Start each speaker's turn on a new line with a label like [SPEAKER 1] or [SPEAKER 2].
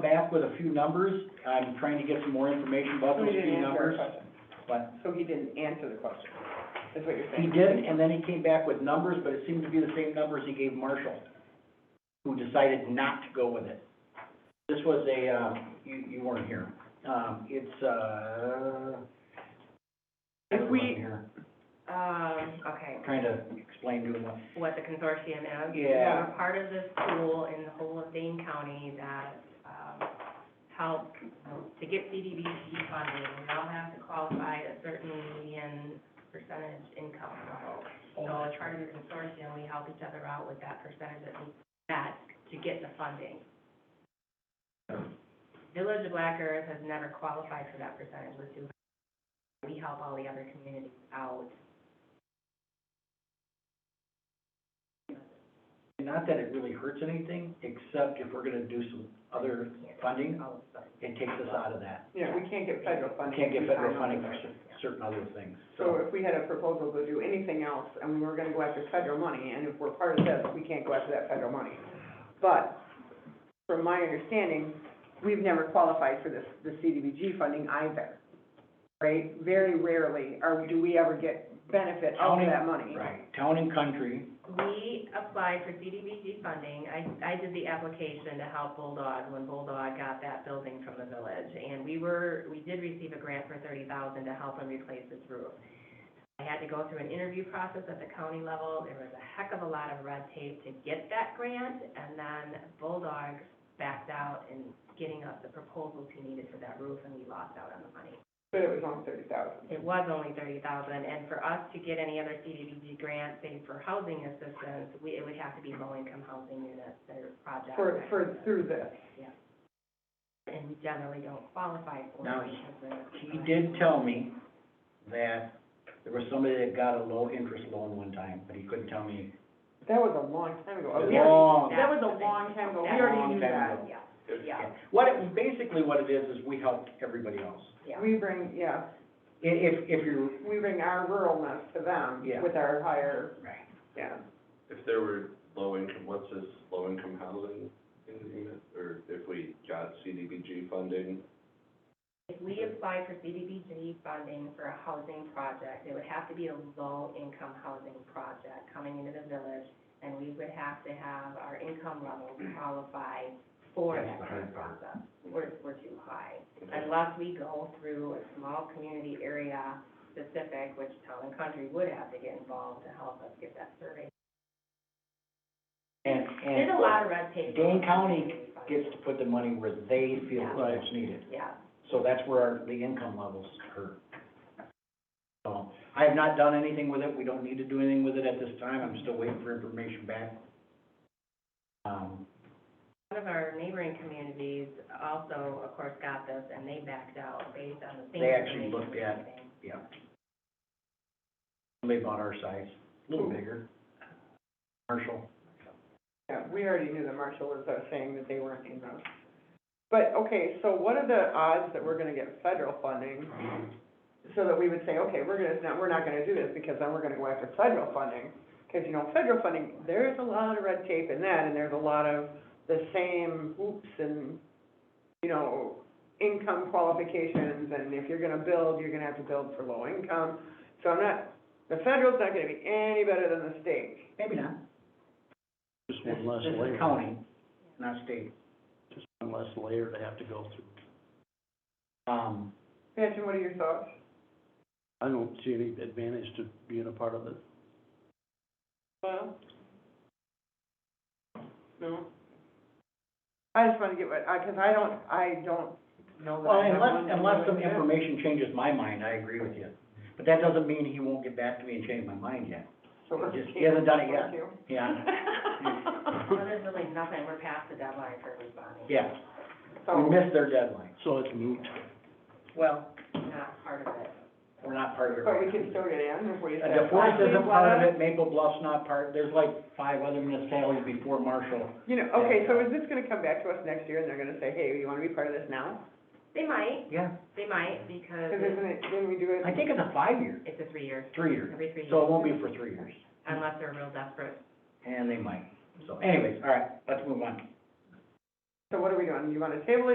[SPEAKER 1] back with a few numbers. I'm trying to get some more information about
[SPEAKER 2] So
[SPEAKER 1] those
[SPEAKER 2] he didn't
[SPEAKER 1] few
[SPEAKER 2] answer our
[SPEAKER 1] Oh, numbers.
[SPEAKER 2] question.
[SPEAKER 1] But
[SPEAKER 2] So he didn't answer the question, is what you're
[SPEAKER 1] he
[SPEAKER 2] saying?
[SPEAKER 1] didn't, and then he came back with numbers, but it seemed to be the same numbers he gave Marshall, who decided not to go with it. This was a, uh, you, you weren't here. Um, it's, uh.
[SPEAKER 3] If we-
[SPEAKER 1] I wasn't here.
[SPEAKER 3] Um, okay,
[SPEAKER 1] Trying to explain to him what
[SPEAKER 3] what the consortium is.
[SPEAKER 1] Yeah.
[SPEAKER 3] We're part of this pool in the whole of Dane County that, um, helped to get CDBG funding. We all have to qualify a certain median percentage income level. So as part of the consortium, we help each other out with that percentage that we met to get the funding. Village of Black Earth has never qualified for that percentage with Duke. We help all the other communities out.
[SPEAKER 1] Not that it really hurts anything, except if we're gonna do some other funding,
[SPEAKER 3] All of them.
[SPEAKER 1] it takes us out of that.
[SPEAKER 2] Yeah, we can't get federal
[SPEAKER 1] We
[SPEAKER 2] funding.
[SPEAKER 1] can't get
[SPEAKER 2] We
[SPEAKER 1] federal
[SPEAKER 2] find
[SPEAKER 1] funding
[SPEAKER 2] out.
[SPEAKER 1] for cer- certain other things,
[SPEAKER 2] So
[SPEAKER 1] so.
[SPEAKER 2] if we had a proposal to do anything else, and we were gonna go after federal money, and if we're part of this, we can't go after that federal money. But, from my understanding, we've never qualified for this, the CDBG funding either, right? Very rarely, or do we ever get benefit out of that money.
[SPEAKER 1] Right, town and country,
[SPEAKER 3] We applied for CDBG funding. I, I did the application to help Bulldog when Bulldog got that building from the village. And we were, we did receive a grant for thirty thousand to help them replace this roof. I had to go through an interview process at the county level. There was a heck of a lot of red tape to get that grant. And then Bulldog backed out in getting us the proposals he needed for that roof and we lost out on the money.
[SPEAKER 2] But it was only thirty thousand.
[SPEAKER 3] It was only thirty thousand, and for us to get any other CDBG grant, say for housing assistance, we, it would have to be low-income housing units or projects.
[SPEAKER 2] For, for, through this.
[SPEAKER 3] And we generally don't qualify for. it
[SPEAKER 1] Now,
[SPEAKER 3] because they're-
[SPEAKER 1] he did tell me that there was somebody that got a low interest loan one time, but he couldn't tell me.
[SPEAKER 2] That was a long time ago.
[SPEAKER 1] It was
[SPEAKER 2] We already-
[SPEAKER 1] long.
[SPEAKER 2] Oh, That was a long time ago. We
[SPEAKER 3] That's-
[SPEAKER 2] already
[SPEAKER 1] Long
[SPEAKER 2] knew
[SPEAKER 1] time
[SPEAKER 2] that.
[SPEAKER 1] ago.
[SPEAKER 3] Yeah, yeah,
[SPEAKER 1] What it, basically what it is, is we helped everybody else.
[SPEAKER 3] yeah.
[SPEAKER 2] We bring, yeah,
[SPEAKER 1] I- If, if you're,
[SPEAKER 2] we bring our ruralness to them
[SPEAKER 1] Yeah.
[SPEAKER 2] with our higher,
[SPEAKER 1] right.
[SPEAKER 2] yeah.
[SPEAKER 4] If there were low income, what's this, low income housing in the unit, or if we got CDBG funding?
[SPEAKER 3] If we apply for CDBG funding for a housing project, it would have to be a low-income housing project coming into the village, and we would have to have our income level qualify for
[SPEAKER 1] That's
[SPEAKER 3] that
[SPEAKER 1] the
[SPEAKER 3] kind
[SPEAKER 1] hard
[SPEAKER 3] of
[SPEAKER 1] part.
[SPEAKER 3] process. We're, we're too high. Unless we go through a small community area specific, which town and country would have to get involved to help us get that survey.
[SPEAKER 1] And, and
[SPEAKER 3] There's a lot of red tape.
[SPEAKER 1] Dane County gets to put the money where they feel
[SPEAKER 3] Yeah.
[SPEAKER 1] it's needed.
[SPEAKER 3] Yeah.
[SPEAKER 1] So that's where our- the income levels hurt. So I have not done anything with it. We don't need to do anything with it at this time. I'm still waiting for information back. Um,
[SPEAKER 3] One of our neighboring communities also, of course, got this, and they backed out based on the same.
[SPEAKER 1] They actually
[SPEAKER 3] information
[SPEAKER 1] looked at-
[SPEAKER 3] and everything.
[SPEAKER 1] yeah. Somebody about our size, a little bigger. Marshall,
[SPEAKER 2] Yeah, we already knew that Marshall was uh, saying that they weren't in those. But, okay, so what are the odds that we're gonna get federal funding? So that we would say, okay, we're gonna, no, we're not gonna do this because then we're gonna go after federal funding. Cause you know, federal funding, there's a lot of red tape in that and there's a lot of the same hoops and, you know, income qualifications and if you're gonna build, you're gonna have to build for low income. So I'm not, the federal's not gonna be any better than the state.
[SPEAKER 1] maybe not.
[SPEAKER 5] Just
[SPEAKER 1] This
[SPEAKER 5] one less
[SPEAKER 1] this is
[SPEAKER 5] layer,
[SPEAKER 1] county, not state.
[SPEAKER 5] just one less layer to have to go through.
[SPEAKER 1] Um,
[SPEAKER 2] Patchen, what are your thoughts?
[SPEAKER 5] I don't see any advantage to being a part of it.
[SPEAKER 2] Well. No. I just wanna get what, I, cause I don't, I don't know that
[SPEAKER 1] well,
[SPEAKER 2] I have one.
[SPEAKER 1] unless, unless some
[SPEAKER 2] Yeah.
[SPEAKER 1] information changes my mind, I agree with you. But that doesn't mean he won't get back to me and change my mind yet.
[SPEAKER 2] So we're-
[SPEAKER 1] Just- he hasn't done it yet.
[SPEAKER 2] Thank you.
[SPEAKER 1] Yeah,
[SPEAKER 3] Well, there's really nothing, we're past the deadline for responding.
[SPEAKER 1] yeah. We
[SPEAKER 2] So,
[SPEAKER 1] missed their deadline.
[SPEAKER 5] So it's moot.
[SPEAKER 1] Well,
[SPEAKER 3] Not part of it.
[SPEAKER 1] we're not part of it right
[SPEAKER 2] but we
[SPEAKER 1] now.
[SPEAKER 2] can still get in if we.
[SPEAKER 1] Uh, DeForest isn't part of it, Maple Bluff's not part, there's like five other municipalities before Marshall.
[SPEAKER 2] You know, okay, so is this gonna come back to us next year and they're gonna say, hey, you wanna be part of this now?
[SPEAKER 3] They might,
[SPEAKER 1] Yeah.
[SPEAKER 3] they might, because
[SPEAKER 2] Cause isn't it, didn't we do it?
[SPEAKER 1] I think it's a five-year,
[SPEAKER 3] it's a three-year,
[SPEAKER 1] three-year,
[SPEAKER 3] every three
[SPEAKER 1] so
[SPEAKER 3] years,
[SPEAKER 1] it won't be for three years,
[SPEAKER 3] unless they're real desperate.
[SPEAKER 1] and they might. So anyways, all right, let's move on.
[SPEAKER 2] So what are we doing? You wanna table it?